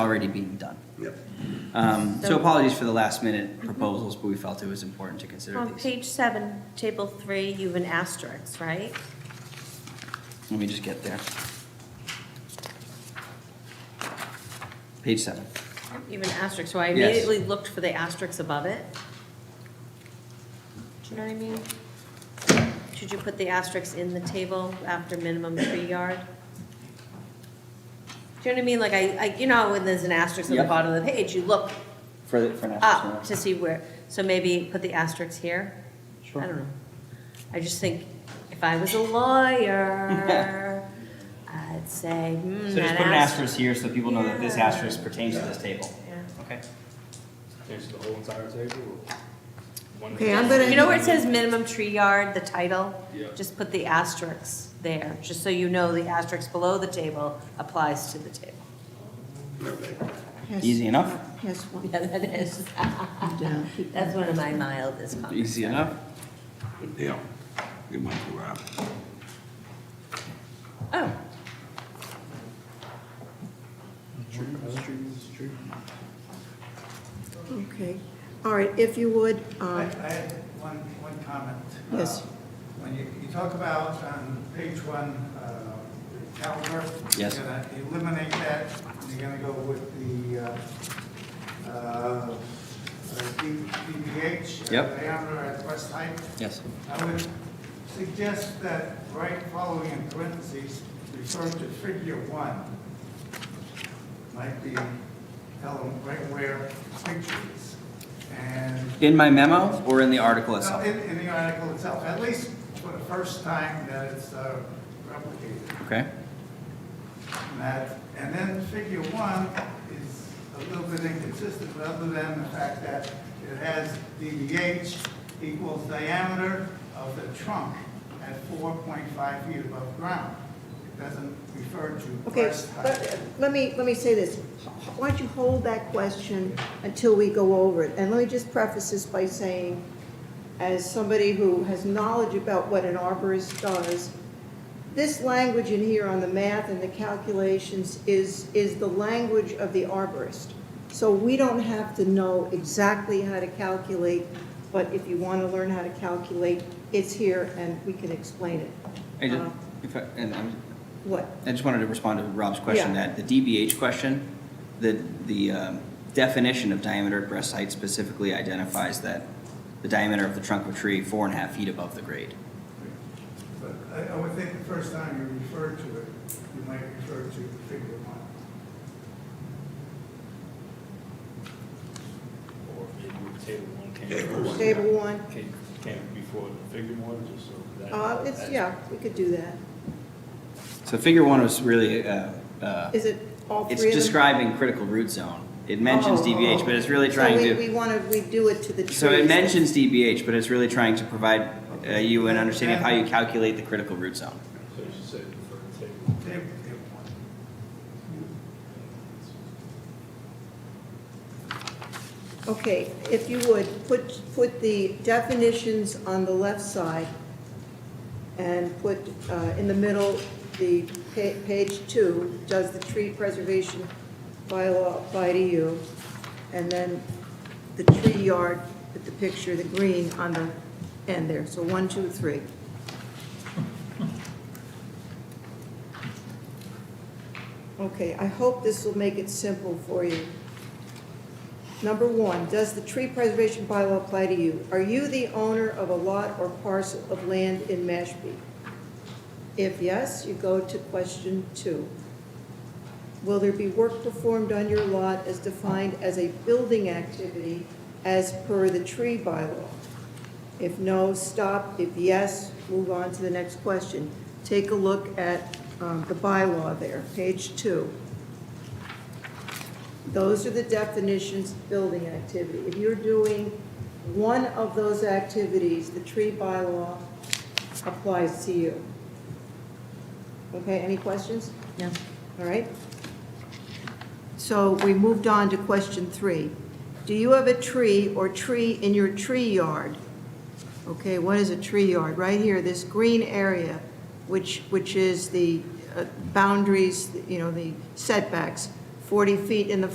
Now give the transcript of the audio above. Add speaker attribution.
Speaker 1: already being done.
Speaker 2: Yep.
Speaker 1: Um, So
Speaker 3: So- Mm-hmm.
Speaker 1: apologies for the last minute proposals, but we felt it was important to consider
Speaker 3: On
Speaker 1: these.
Speaker 3: page seven, table three, you have an asterisk, right?
Speaker 1: Let me just get there. Page seven.
Speaker 3: You have an asterisk, so I
Speaker 1: Yes.
Speaker 3: immediately looked for the asterisks above it. Do you know what I mean? Should you put the asterisks in the table after minimum tree yard? Do you know what I mean? Like I, I, you know, when there's an asterisk at the
Speaker 1: Yep.
Speaker 3: bottom of the page, you look
Speaker 1: For, the- for an
Speaker 3: up
Speaker 1: asterisk.
Speaker 3: to see where, so maybe put the asterisks here? I don't know. I just think, if I was a lawyer, I'd say, hmm,
Speaker 1: So just
Speaker 3: that
Speaker 1: put an
Speaker 3: asterisk.
Speaker 1: asterisk here so people know that this
Speaker 3: Yeah.
Speaker 1: asterisk pertains to this table.
Speaker 3: Yeah.
Speaker 1: Okay.
Speaker 4: There's the whole entire table. One-
Speaker 5: Okay, I'm gonna-
Speaker 3: You know where it says minimum tree yard, the title?
Speaker 4: Yeah.
Speaker 3: Just put the asterisks there, just so you know the asterisk below the table applies to the table.
Speaker 2: Okay.
Speaker 5: Has-
Speaker 1: Easy enough?
Speaker 5: Has one
Speaker 3: Yeah, that is,
Speaker 5: down.
Speaker 3: that's one of my mildest comments.
Speaker 1: Easy enough?
Speaker 2: Yeah. Good one, Rob.
Speaker 3: Oh,
Speaker 5: Okay, all right, if you would,
Speaker 6: I I
Speaker 5: um,
Speaker 6: had one, one comment.
Speaker 5: Yes.
Speaker 6: Uh, When you, you talk about on page one, uh, the caliber.
Speaker 1: Yes.
Speaker 6: You're gonna eliminate that, and you're gonna go with the, uh, uh, D- DBH. uh,
Speaker 1: Yep.
Speaker 6: Diameter at West Height.
Speaker 1: Yes.
Speaker 6: I would suggest that right following in parentheses, refer to figure one. Might be, tell them right where picture is. And
Speaker 1: In my memo or in the article
Speaker 6: no,
Speaker 1: itself?
Speaker 6: Uh, In, in the article itself, at least for the first time that it's uh, replicated.
Speaker 1: Okay,
Speaker 6: And That, and then figure one is a little bit inconsistent, other than the fact that it has DBH equals diameter of the trunk at four point five feet above ground. It doesn't refer to
Speaker 5: okay,
Speaker 6: breast
Speaker 5: but
Speaker 6: height.
Speaker 5: uh, let me, let me say this. Why don't you hold that question until we go over it? And let me just preface this by saying, as somebody who has knowledge about what an arborist does, this language in here on the math and the calculations is, is the language of the arborist. So we don't have to know exactly how to calculate, but if you want to learn how to calculate, it's here and we can explain it.
Speaker 1: I just,
Speaker 5: Uh,
Speaker 3: Oh.
Speaker 1: if I, and I'm,
Speaker 5: What?
Speaker 1: I just wanted to respond to Rob's question,
Speaker 5: Yeah.
Speaker 1: that the DBH question, the, the um, definition of diameter at breast height specifically identifies that the diameter of the trunk of a tree, four and a half feet above the grade.
Speaker 6: But I, I would think the first time you refer to it, you might refer to figure one.
Speaker 4: Or maybe the table one came
Speaker 2: Table
Speaker 4: first.
Speaker 2: one.
Speaker 5: Table one,
Speaker 4: Came, came before the figure one, just so that.
Speaker 5: uh, it's, yeah, we could do that.
Speaker 1: So figure one was really, uh, uh,
Speaker 5: Is it all three of
Speaker 1: it's
Speaker 5: them?
Speaker 1: describing critical root zone. It mentions
Speaker 5: Oh,
Speaker 1: DBH, but it's really trying
Speaker 5: So we-
Speaker 1: to,
Speaker 5: we want to redo it to the trees.
Speaker 1: so it mentions DBH, but it's really trying to provide uh, you an understanding of how you calculate the critical root zone.
Speaker 4: So you should say for the table.
Speaker 6: Table, table one.
Speaker 5: Okay, if you would, put, put the definitions on the left side and put uh, in the middle, the pa- page two, does the tree preservation bylaw apply to you? And then the tree yard, with the picture, the green on the end there, so one, two, three. Okay, I hope this will make it simple for you. Number one, does the tree preservation bylaw apply to you? Are you the owner of a lot or parcel of land in Mashpee? If yes, you go to question two. Will there be work performed on your lot as defined as a building activity as per the tree bylaw? If no, stop. If yes, move on to the next question. Take a look at um, the bylaw there, page two. Those are the definitions, of building activity. If you're doing one of those activities, the tree bylaw applies to you. Okay, any questions?
Speaker 3: yeah.
Speaker 5: All right. So we moved on to question three. Do you have a tree or tree in your tree yard? Okay, what is a tree yard? Right here, this green area, which, which is the uh, boundaries, you know, the setbacks, 40 feet in the